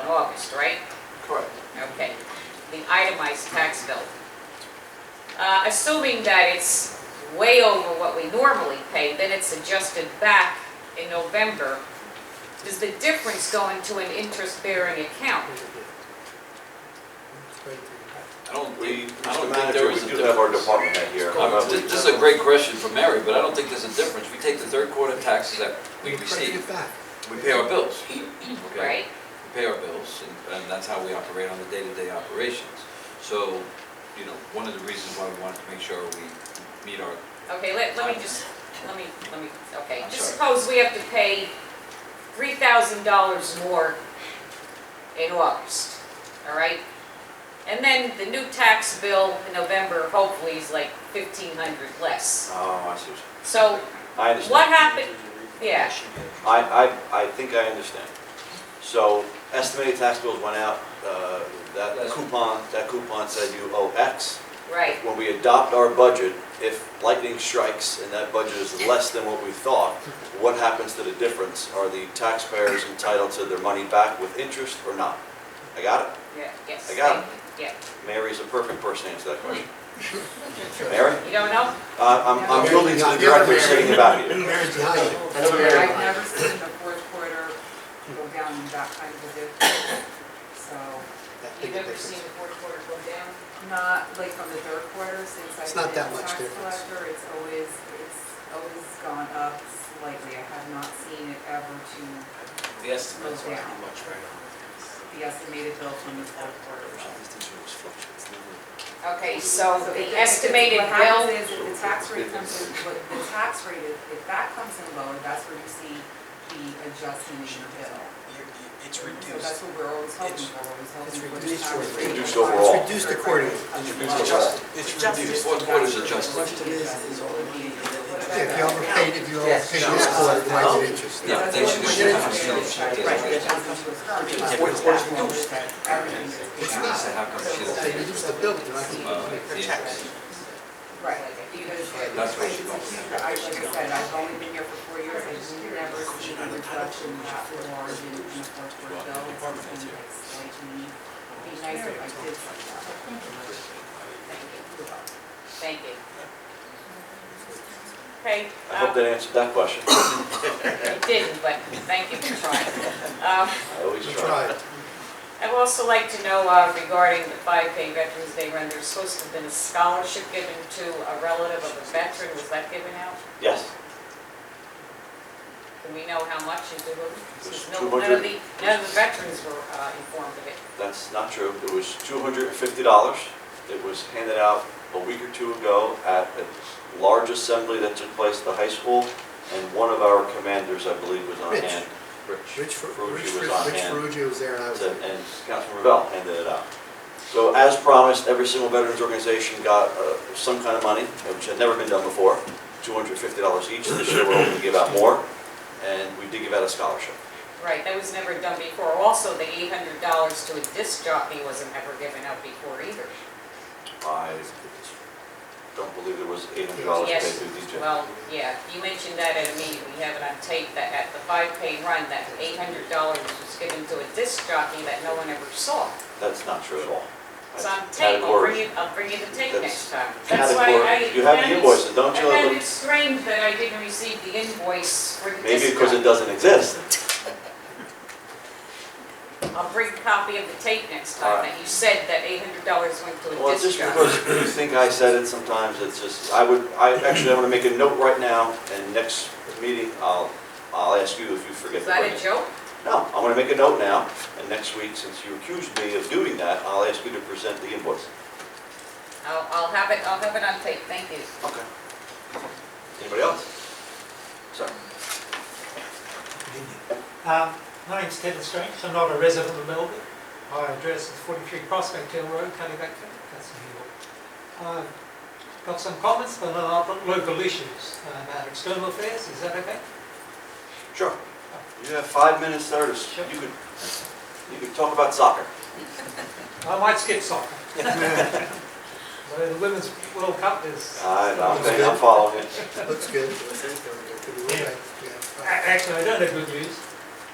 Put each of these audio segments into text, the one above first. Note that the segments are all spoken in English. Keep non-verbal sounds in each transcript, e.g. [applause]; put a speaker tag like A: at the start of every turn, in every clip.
A: proposed, right?
B: Correct.
A: Okay, the itemized tax bill. Uh, Assuming that it's way over what we normally pay, then it's adjusted back in November. Does the difference go into an interest-bearing account?
C: I don't, we, I
D: Mr.
C: don't think there
D: Manager,
C: is a
D: we do have our
C: difference.
D: department head here. I'm not-
C: This this is a great question for Mary, but I don't think there's a difference. We take the third quarter taxes that we receive, we pay our bills. [clears throat] okay?
A: Right?
C: We pay our bills, and- and that's how we operate on the day-to-day operations. So, you know, one of the reasons why we wanted to make sure we meet our,
A: Okay, let, let me just, let me, let me, okay.
C: I'm
A: Just suppose we have to pay three thousand dollars more in August, all right? And then the new tax bill in November hopefully is like fifteen hundred less.
D: Oh, I see. what
A: So
D: you- I understand.
A: What happened, yeah,
D: I, I, I think I understand. So estimated tax bills went out, uh, that
C: Yes.
D: coupon, that coupon said you owe X.
A: right,
D: When we adopt our budget, if lightning strikes and that budget is less than what we thought, what happens to the difference? Are the taxpayers entitled to their money back with interest or not? I got it.
A: yeah, yes.
D: I got
A: Yeah,
D: Mary's a perfect person to answer that question. Mary?
A: you don't know?
D: Uh, I'm, I'm
B: Mary,
D: building to the
B: not the other
D: director sitting about you.
B: Mary's behind you.
E: I've never seen the fourth quarter go down in that kind of a dip. So,
A: You've never seen the fourth quarter go down?
E: not like from the third quarter since I've
B: It's
E: been
B: not
E: a
B: that much
E: tax
B: difference.
E: collector, it's always, it's always gone up slightly. I have not seen it ever to
F: The estimates
E: go
F: are
E: down.
F: how much right now?
E: The estimated bill from the fourth quarter.
A: Okay, so
E: So
A: the
E: it- it-
A: estimated
E: What happens
A: bill,
E: is if the tax rate comes in, what the tax rate, if if that comes in lower, that's where you see the adjustment in your bill.
F: You- you- It's
E: So that's
F: reduced.
E: what we're always hoping
F: It's-
E: for, we're always
B: it's
E: hoping for.
B: reduced
E: the tax
B: for-
E: rate
D: reduced
E: to
D: overall.
E: rise.
B: It's reduced accordingly.
D: Reduced
F: Adjusted. It's
E: Adjusted.
F: reduced.
C: Fourth quarter is adjusted.
B: If you overpaid, if you overpaid this quarter, it might get interest.
C: Yeah, they should- they should have still-
E: Right, the adjustment was current.
F: Fourth quarter's reduced.
E: Everything is taken
C: so
E: out.
C: how come she
B: They
C: doesn't,
B: reduced the bill, but they're not gonna
C: uh, the interest?
E: Right, because it-
C: That's where she
E: it's a
C: goes.
E: huge- I- Like I said, I've only been here for four years, I've never seen a reduction that large in in the fourth quarter bill. It's been like slightly, it'd be nice if I did something.
A: thank you. Okay.
D: I hope that answered that question.
A: It didn't, but thank you for trying. Um,
D: I always try.
B: Try.
A: I'd also like to know uh, regarding the 5K Veterans Day Run, there's supposed to have been a scholarship given to a relative of a veteran, was that given out?
D: Yes,
A: Do we know how much and to who? Since no-
D: Two
A: None of
D: hundred.
A: the, none of the veterans were uh, informed of it.
D: that's not true. It was two hundred and fifty dollars. It was handed out a week or two ago at a large assembly that took place at the high school, and one of our commanders, I believe, was on
B: Rich.
D: hand.
B: Rich Fer-
D: Ferrugia
B: Rich
D: was
B: Fer-
D: on
B: Rich
D: hand.
B: Ferrugia was there and I was there.
D: And and Councilman Revelle handed it out. So as promised, every single veterans organization got uh, some kind of money, which had never been done before, $250 each. This year, we're hoping to give out more, and we did give out a scholarship.
A: Right, that was never done before. Also, the $800 to a disc jockey wasn't ever given out before either.
D: I don't believe there was $800 paid
A: Yes.
D: to DJ.
A: Well, yeah, you mentioned that at a meeting, we have it on tape, that at the 5K Run, that $800 was given to a disc jockey that no one ever saw.
D: That's not true at all.
A: It's on
D: That's
A: tape, I'll
D: category-
A: bring you, I'll bring you the tape next
D: That's
A: time. That's why I.
D: Category, you have
A: found
D: the
A: it-
D: invoices, don't
A: I
D: you?
A: found
D: Ellen?
A: it strange that I didn't receive the invoice for the
D: Maybe
A: disc
D: because it
A: jockey.
D: doesn't exist.
A: I'll bring a copy of the tape next
D: All
A: time,
D: right.
A: that you said that $800 went to
D: Well,
A: a
D: it's
A: disc
D: just
A: jockey.
D: because you think I said it sometimes, it's just, I would, I, actually, I'm gonna make a note right now, and next meeting, I'll, I'll ask you if you forget
A: Is
D: to
A: that
D: bring
A: a
D: it.
A: joke?
D: No, I'm gonna make a note now, and next week, since you accused me of doing that, I'll ask you to present the invoice.
A: I'll, I'll have it, I'll have it on tape, thank you.
D: Okay. Anybody else? Sorry.
G: Um, My name's Kevin Strange, I'm not a resident of Melbourne. My address is 43 Prospect Hill Road, Caliback, that's New York. I've Um, got some comments on our local issues uh, about external affairs, is that okay?
D: Sure. You have five minutes there to, s- you could, you could talk about soccer.
G: I might
D: [laughs]
G: skip soccer. [laughs] Although The Women's World Cup is...
D: I, I'm, thinking- I'm following it.
B: Looks good. Could be way back, yeah.
G: A- Actually, I don't have good news.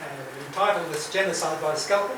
G: Uh, The title is Genocide by Scalpel.